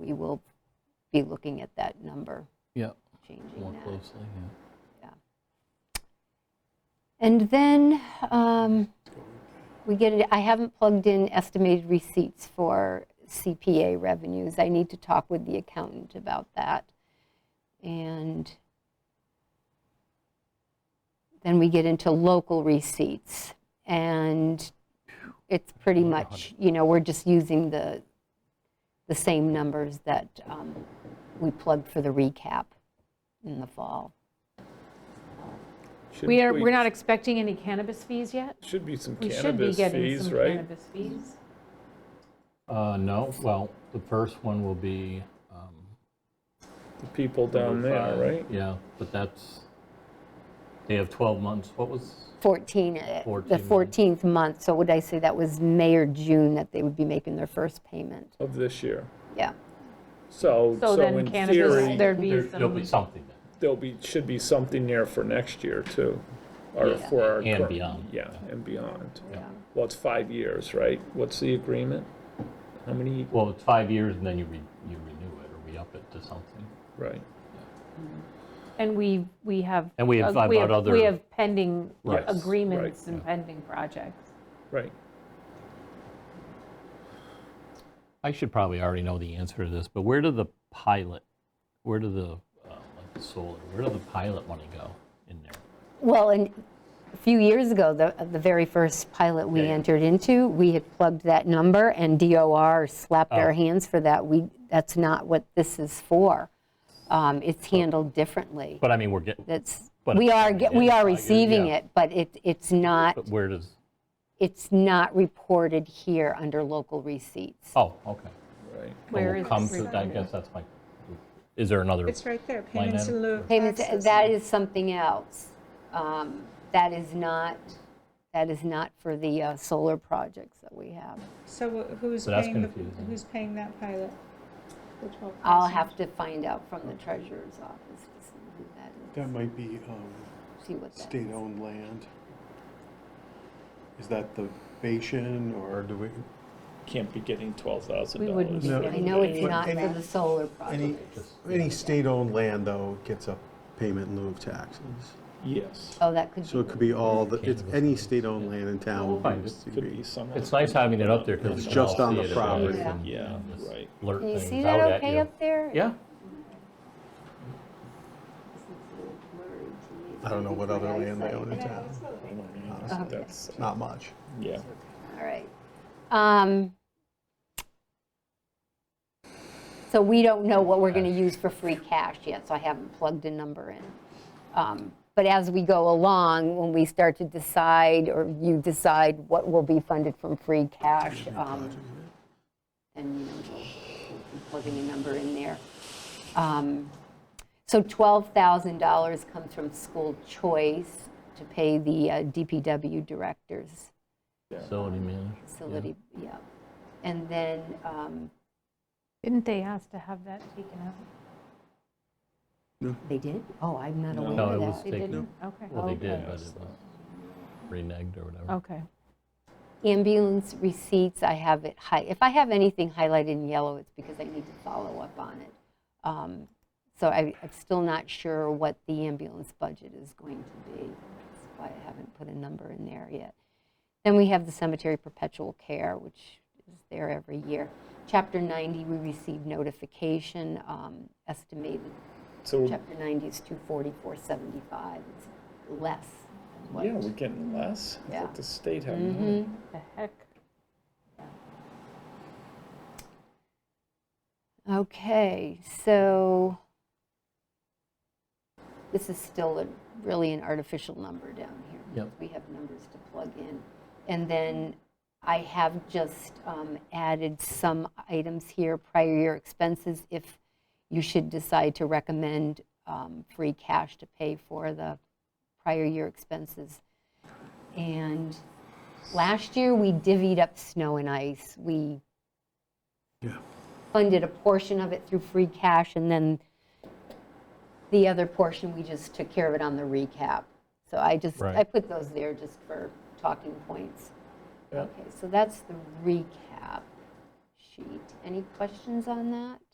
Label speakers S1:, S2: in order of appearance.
S1: will be looking at that number,
S2: Yeah,
S1: changing
S2: more
S1: that.
S2: closely, yeah.
S1: And then um, we get, it. I haven't plugged in estimated receipts for CPA revenues. I need to talk with the accountant about that. And then we get into local receipts. And it's pretty much, you know, we're just using the, the same numbers that um, we plugged for the recap in the fall.
S3: Should
S4: We are, we're not expecting any cannabis fees yet?
S3: Should be some
S4: We should be
S3: cannabis
S4: getting
S3: fees,
S4: some
S3: right?
S4: cannabis fees.
S2: Uh, no, well, the first one will be. um,
S3: The people down there,
S2: uh,
S3: right?
S2: Yeah, but that's, they have 12 months, what was,
S1: 14, uh, the
S2: 14
S1: 14th month, so would I say that was May or June that they would be making their first payment?
S3: Of this year.
S1: Yeah,
S3: So,
S4: So
S3: so
S4: then
S3: in
S4: cannabis,
S3: theory,
S4: there'd
S2: There-
S4: be
S2: there'll be
S4: some,
S2: something then.
S3: there'll be, should be something there for next year too. Or
S1: Yeah.
S3: for our.
S2: And
S3: current-
S2: beyond.
S3: Yeah, and beyond.
S1: yeah.
S3: Well, it's five years, right? What's the agreement? How many,
S2: Well, it's five years and then you re, you renew it or we up it to something.
S3: right?
S4: and we, we have.
S2: And we have
S4: uh,
S2: about other-
S4: We have pending
S2: Right.
S3: Yes,
S4: agreements
S3: right,
S4: and pending projects.
S3: Right.
S2: I should probably already know the answer to this, but where do the pilot, where do the, uh, like the solar, where do the pilot money go in there?
S1: Well, and a few years ago, the, the very first pilot we
S2: Yeah, yeah.
S1: entered into, we had plugged that number, and DOR slapped our
S2: Oh.
S1: hands for that. We, that's not what this is for. Um, It's handled differently.
S2: But I mean, we're getting,
S1: That's,
S2: But
S1: we
S2: it's
S1: are,
S2: coming
S1: get-
S2: in,
S1: we
S2: I
S1: are
S2: get it,
S1: receiving
S2: yeah.
S1: it, but it, it's not,
S2: but where does,
S1: it's not reported here under local receipts.
S2: oh, okay.
S3: Right.
S2: But
S4: Where
S2: we'll
S4: is
S2: come
S4: this
S2: to- I guess that's my, is there another?
S5: It's right there, payments
S2: item.
S5: in lieu of
S1: Payments,
S5: taxes.
S1: that is something else. Um, That is not, that is not for the uh, solar projects that we have.
S5: So wh- who's
S2: So that's
S5: paying, the-
S2: confusing.
S5: who's paying that pilot? The 12,000?
S1: I'll have to find out from the treasurer's office to see who that
S6: That might be um,
S1: is, see what that is.
S6: state-owned land. Is that the Bashan or do we,
S3: Can't be getting twelve thousand
S4: We
S3: dollars.
S4: wouldn't be
S6: No.
S1: I know it's
S6: But
S1: not for
S6: any-
S1: the solar
S6: any,
S1: projects.
S6: any state-owned land though gets a payment in lieu of taxes.
S3: Yes,
S1: Oh, that could be.
S6: So it could be all, the it's any state-owned land in town. will
S2: Fine.
S6: be a
S3: could
S6: degree.
S3: be some.
S2: It's nice having it up there because.
S6: It's just on the property.
S3: Yeah, right.
S2: Alert
S1: Can you see
S2: things
S1: that
S2: out at
S1: okay
S2: you.
S1: up there?
S2: Yeah,
S6: I don't know what other land they own in
S1: All
S6: town.
S4: Oh,
S3: Honestly,
S1: Okay.
S3: That's,
S6: Not much.
S3: yeah.
S1: right. Um, So we don't know what we're going to use for free cash yet, so I haven't plugged a number in. Um, But as we go along, when we start to decide, or you decide what will be funded from free cash, um, and, you know, we'll be plugging a number in there. Um, So $12,000 comes from school choice to pay the uh, DPW directors
S2: facility manager.
S1: facility, yeah. And then, um,
S4: Didn't they ask to have that taken out?
S1: they did? Oh, I'm not aware of that.
S2: No, it was
S4: They
S2: taken,
S4: didn't? Okay,
S2: well, Oh, they
S1: Oh,
S2: did,
S4: Okay.
S2: but it was reneged or whatever.
S4: Oh, okay.
S1: Ambulance receipts, I have it high, if I have anything highlighted in yellow, it's because I need to follow up on it. Um, So I, I'm still not sure what the ambulance budget is going to be. That's why I haven't put a number in there yet. Then we have the cemetery perpetual care, which is there every year. Chapter 90, we received notification, um, estimated
S3: So, yeah,
S1: Chapter 90 is 244.75, it's less than what.
S3: we're getting less. I
S1: Yeah. Mm-hmm.
S3: thought The state had more.
S4: The heck?
S1: Okay, so this is still a- really an artificial number down here.
S2: Yep.
S1: We have numbers to plug in. And then I have just um, added some items here, prior year expenses, if you should decide to recommend um, free cash to pay for the prior year expenses. And last year, we divvied up snow and ice. We
S6: Yeah.
S1: funded a portion of it through free cash, and then the other portion, we just took care of it on the recap. So I just, I
S2: Right.
S1: put those there just for talking points.
S3: Yeah.
S1: Okay, so that's the recap sheet. Any questions on that?